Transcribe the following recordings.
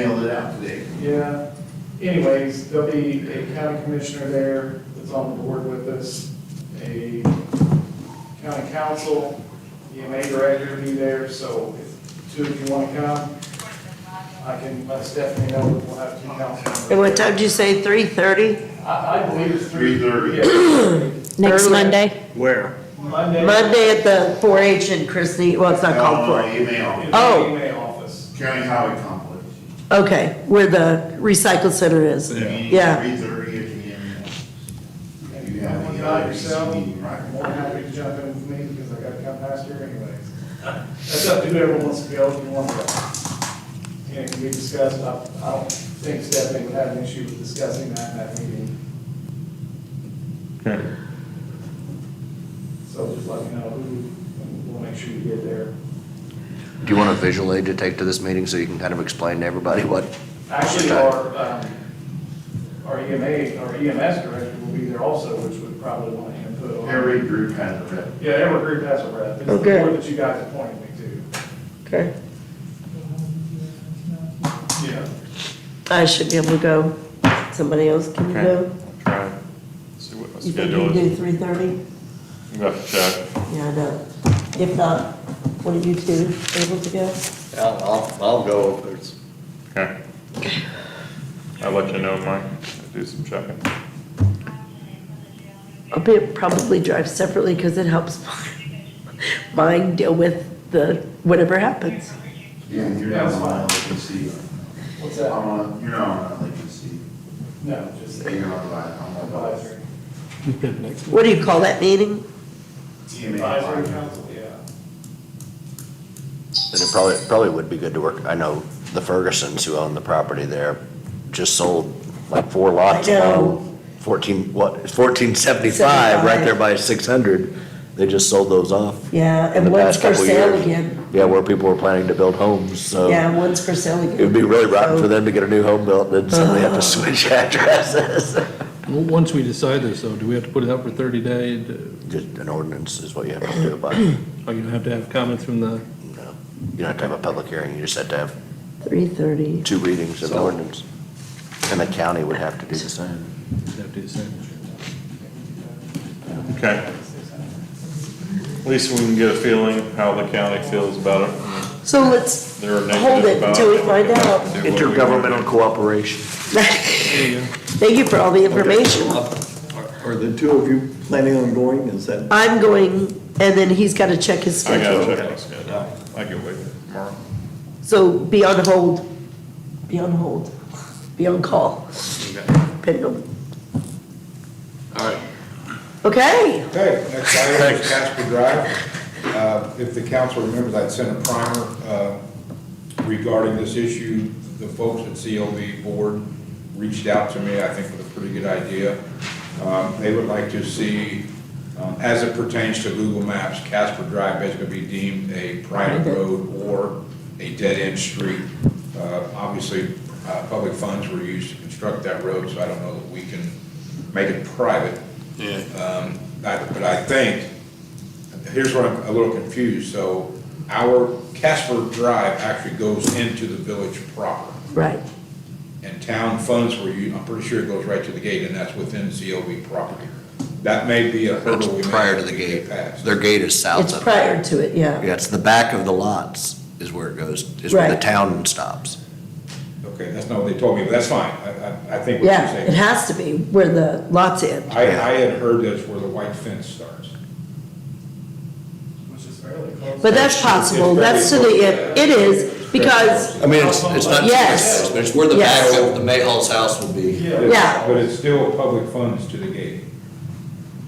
mailed it out today. Yeah, anyways, there'll be a county commissioner there that's on the board with us, a county council, EMA director will be there, so if two of you want to come, I can let Stephanie know that we'll have two council members. And what time did you say, 3:30? I, I believe it's three. 3:30. Yeah. Next Early. Monday? Where? Monday. Monday at the 4-H in Christie, well, it's not called Illinois 4. In email, Oh. the EMA office. county highway complex. Okay, where the recycle center is. Yeah. Three thirty at the end. And You if you have want the to other die yourself, meeting, right? more than happy to jump in with me because I gotta come past here anyways. That's up to whoever wants to go, if you want to. And it can be discussed, I, I don't think Stephanie would have an issue with discussing that in that meeting, Okay. so just let me know who, and we'll make sure you get there. Do you want a visual aid to take to this meeting so you can kind of explain to everybody what? Actually, uh, our, um, our EMA, our EMS director will be there also, which would probably want input on. Every group has a rep. Yeah, every group has a rep, it's the Okay. board that you guys appointed me to, Okay. yeah. I should be able to go. Somebody else can Okay. go? Try and see what my You think you schedule can is. do 3:30? I'm gonna have to check. Yeah, I know. If not, what are you two able to go? I'll, I'll, I'll go if there's. Okay. I'll let you know, Mike. Do some checking. I'll be, probably drive separately because it helps mine deal with the, whatever happens. Yeah, you're not on LAPC. What's I'm that? on, you're not on LAPC. No, just You're not on, I'm on advisory. advisory. What do you call that meeting? Advisory council, yeah. Then it probably, probably would be good to work, I know the Fergusons who own the property there just sold like four lots. I know. along Fourteen, what, fourteen seventy-five, right there by six hundred, they just sold those off. Yeah, in the and one's past for couple sale years. again. Yeah, where people were planning to build homes, so. Yeah, one's for sale again. It would be really rotten for them to get a new home built, and then suddenly Oh. have to switch addresses. Well, Once we decide this, though, do we have to put it up for 30 days? Uh, Just an ordinance is what you have to do about it. Are you gonna have to have comments from the, No, You don't have to have a public hearing, you just have to have 3:30. two readings of the ordinance. And the county would have to do the same. have to decide? Okay. At least we can get a feeling how the county feels about it. So let's They're negative hold it about until we it. find out. Do what we Intergovernmental cooperation. Thank There you go. you for all the information. Are the two of you planning on going? Is that, I'm going, and then he's got to check his I gotta schedule. check my schedule. I can wait tomorrow. So be on hold, be on hold, be on call. Pendle. All right. Okay, Okay, next item is Casper Drive. Uh, If the council remembers, I'd sent a primer uh, regarding this issue. The folks at COB Board reached out to me, I think with a pretty good idea. Um, They would like to see, um, as it pertains to Google Maps, Casper Drive basically be deemed a private road or a dead-end street. Uh, Obviously, uh, public funds were used to construct that road, so I don't know that we can make it private. Um, I- But I think, here's where I'm a little confused, so our Casper Drive actually goes into the village proper, right. and town funds were, u- I'm pretty sure it goes right to the gate, and that's within COB property. That may be a That's hurdle we may prior to have the to gate. get past. Their gate is south It's of it. prior to it, yeah. Yeah, it's the back of the lots is where it goes, is where the Right. town stops. Okay, that's not what they told me, but that's fine, I, I- I think what you're Yeah, saying. it has to be where the lots end. I, I had heard that's where the white fence starts. Which is fairly close. But that's possible, that's to the, it it is, because, I mean, it's, it's not. Yes. But it's where the Yes. back of the Mayhall's house will be. Yeah. Yeah. But it's still public funds to the gate.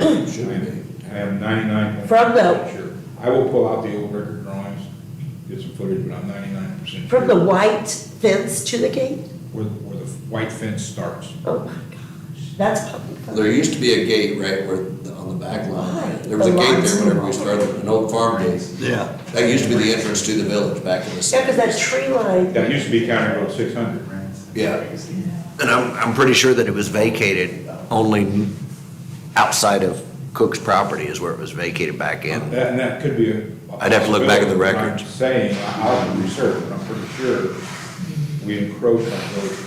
Should be. I am ninety-nine From the- percent sure. I will pull out the old record drawings, get some footage, but I'm ninety-nine percent sure. from the white fence to the gate? Where, where the white fence starts. Oh my gosh, that's public There funds. used to be a gate right where, the- on the back Why? line. There was a The gate lines there whenever we and- started, an old farm gate. yeah. That used to be the entrance to the village back in the Yeah, because that seventies. tree line, That used to be County Road six hundred, right? Yeah, And I'm, I'm pretty sure that it was vacated only outside of Cook's property is where it was vacated back in. That, and that could be a. I'd have to look back at the possibility. I'm records. Saying, I'll research, but I'm pretty sure we encroach on village